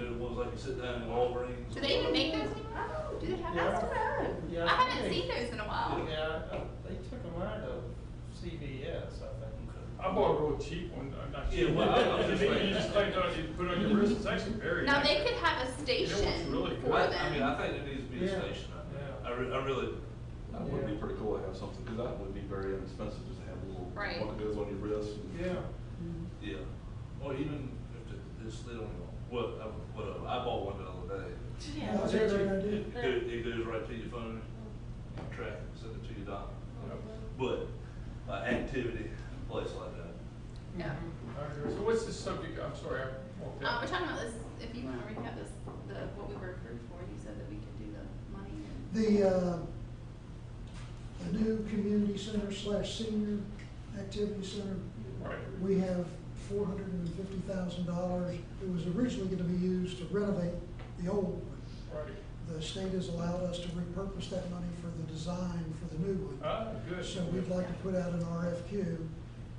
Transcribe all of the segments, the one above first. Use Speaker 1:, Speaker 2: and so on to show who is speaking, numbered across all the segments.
Speaker 1: ones they can sit down in Walgreens.
Speaker 2: Do they even make those anymore? Do they have
Speaker 3: Yeah.
Speaker 2: those?
Speaker 3: Yeah,
Speaker 2: I
Speaker 3: I
Speaker 2: haven't
Speaker 3: think-
Speaker 2: seen those in a while.
Speaker 3: Yeah, I- I- they took them out of CVS, I think.
Speaker 1: Okay.
Speaker 4: I bought a real cheap one, I'm not cheap.
Speaker 1: Yeah, well, I- I was just Mm-hmm.
Speaker 4: You just like, uh, you put it on your wrist, it's actually very.
Speaker 2: Now, they
Speaker 4: nice.
Speaker 2: could have a station
Speaker 4: really
Speaker 2: for
Speaker 4: good.
Speaker 1: I, I mean, I
Speaker 2: them.
Speaker 1: think there needs to be a
Speaker 3: Yeah.
Speaker 1: station out there.
Speaker 3: Yeah.
Speaker 1: I re, I really,
Speaker 5: That would be
Speaker 3: Yeah.
Speaker 5: pretty cool to have something, because that would be very inexpensive, just to have a little,
Speaker 2: Right.
Speaker 5: one that goes on your wrist.
Speaker 3: Yeah,
Speaker 2: Um,
Speaker 1: yeah. Or even if it- it's, they don't, what, I- what, uh, I bought one the other day.
Speaker 3: Yeah, that's a great idea.
Speaker 1: It go- it goes right to your phone, you can track, it, send it to your doctor. But, uh, activity, place like that.
Speaker 2: Yeah.
Speaker 4: I agree. So what's the subject, I'm sorry, I walked
Speaker 2: Um,
Speaker 4: out.
Speaker 2: we're talking about this, if you wanna recap this, the, what we were approved for, you said that we could do the money and.
Speaker 6: The, uh, the new community center slash senior activity center,
Speaker 4: Right.
Speaker 6: we have four hundred and fifty thousand dollars. It was originally gonna be used to renovate the old one.
Speaker 4: Right.
Speaker 6: The state has allowed us to repurpose that money for the design for the new one.
Speaker 4: Ah, good.
Speaker 6: So we'd like to put out an RFQ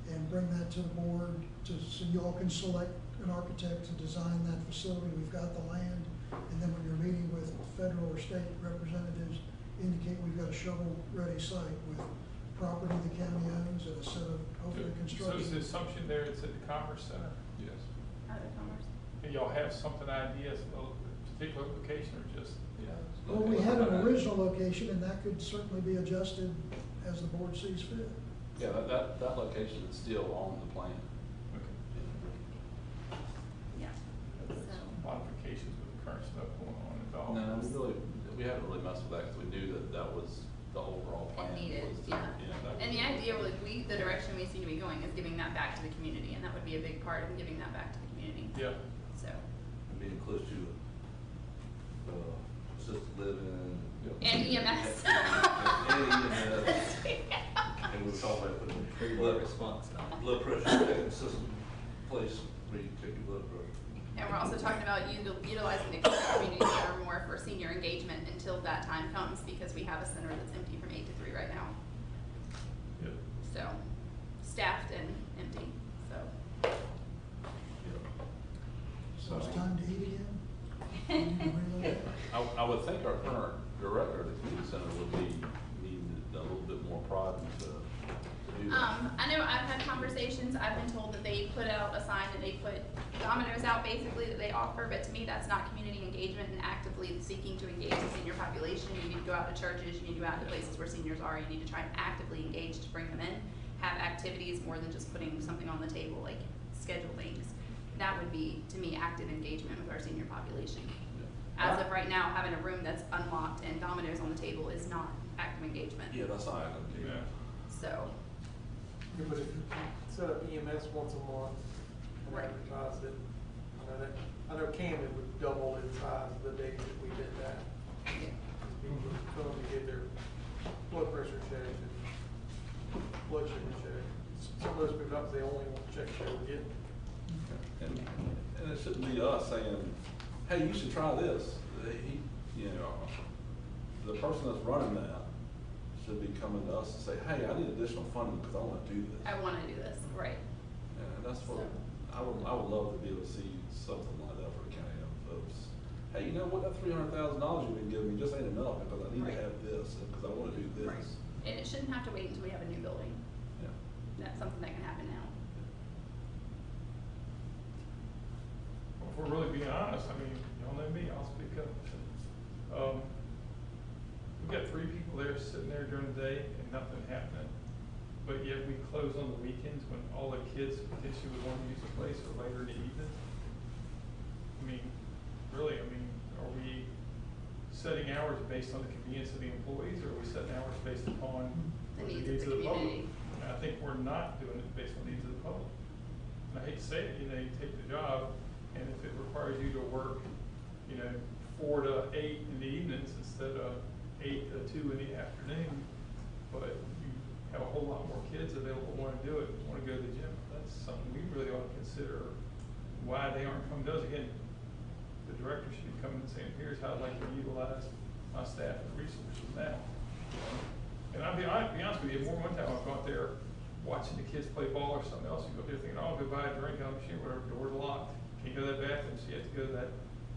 Speaker 6: and bring that to the board to, so y'all can select an architect to design that facility. We've got the land. And then when you're meeting with federal or state representatives, indicate we've got a shovel-ready site with property the county owns and a set of
Speaker 4: So
Speaker 6: hopefully
Speaker 4: is the
Speaker 6: construction.
Speaker 4: assumption there it's at the Commerce Center?
Speaker 5: Yes.
Speaker 2: Out of commerce.
Speaker 4: Do y'all have something, ideas, a particular location or just?
Speaker 6: Well, we had an original location and that could certainly be adjusted as the board sees fit.
Speaker 5: Yeah, that, that, that location is still on the plan.
Speaker 4: Okay.
Speaker 2: Yeah, so,
Speaker 4: Some Modifications with the current stuff going on involved.
Speaker 5: No, we really, we haven't really messed with that, because we knew that that was the overall plan.
Speaker 2: it needed,
Speaker 5: was to-
Speaker 2: yeah.
Speaker 5: that
Speaker 2: And
Speaker 5: was-
Speaker 2: the idea, like, we, the direction we seem to be going is giving that back to the community, and that would be a big part of giving that back to the community.
Speaker 4: Yeah.
Speaker 2: So,
Speaker 1: Being close to, uh, assisted living.
Speaker 5: Yeah.
Speaker 2: and E EMS.
Speaker 1: And EMS. And we were talking about putting. blood- Blood pressure taking system place where you take your blood pressure.
Speaker 2: And we're also talking about util- utilizing the community center more for senior engagement until that time comes, because we have a center that's empty from eight to three right now.
Speaker 4: Yeah.
Speaker 2: So, staffed and empty, so.
Speaker 6: So it's time to eat again. We need to relocate.
Speaker 5: I, I would think our current director of the community center would be needing a little bit more prod to, to do that.
Speaker 2: Um, I know I've had conversations, I've been told that they put out a sign that they put dominoes out basically that they offer, but to me, that's not community engagement and actively seeking to engage the senior population. You need to go out to churches, you need to go out to places where seniors are, you need to try and actively engage to bring them in. Have activities more than just putting something on the table, like schedule things. That would be, to me, active engagement with our senior population. As of right now, having a room that's unlocked and dominoes on the table is not active engagement,
Speaker 5: Yeah, that's not gonna do.
Speaker 4: Yeah.
Speaker 2: so.
Speaker 7: Yeah, but if you set up EMS once a month and
Speaker 2: Right.
Speaker 7: advertise it, I know that, I know Camden would double in size the day that we did that.
Speaker 2: yeah.
Speaker 7: Because People would come to get their blood pressure checked and blood sugar checked. Some of those people, that was the only one check they were getting.
Speaker 5: And, and it shouldn't be us saying, hey, you should try this. He, you know, the person that's running that should be coming to us and say, hey, I need additional funding because I want to do this.
Speaker 2: I want to do this, right.
Speaker 5: And that's what, I would, I would love to be able to see something like that for the county folks. Hey, you know what, that three hundred thousand dollars you've been giving me just ain't enough because I need
Speaker 2: Right.
Speaker 5: to have this and because I want to do
Speaker 2: Right.
Speaker 5: this.
Speaker 2: And it shouldn't have to wait until we have a new building.
Speaker 5: Yeah.
Speaker 2: That's something that can happen now.
Speaker 4: Well, If we're really being honest, I mean, y'all know me, I'll speak up. Um, we got three people there sitting there during the day and nothing happening. But yet we close on the weekends when all the kids potentially would want to use the place or later in the evening. I mean, really, I mean, are we setting hours based on the convenience of the employees or are we setting hours based upon
Speaker 2: The
Speaker 4: what
Speaker 2: needs of the
Speaker 4: public?
Speaker 2: community.
Speaker 4: And I think we're not doing it based on the needs of the public. And I hate to say it, you know, you take the job, and if it requires you to work, you know, four to eight in the evenings instead of eight to two in the afternoon, but you have a whole lot more kids available who wanna do it, wanna go to the gym, that's something we really ought to consider, why they aren't coming to us. Again, the director should be coming and saying, here's how I'd like to utilize my staff and resources now. And I'll be, I'll be honest with you, more than one time I've gone there watching the kids play ball or something else, you go up there thinking, oh, I'll go buy a drink, I'll shoot whatever, door's locked, can't go to that bathroom, so you have to go to that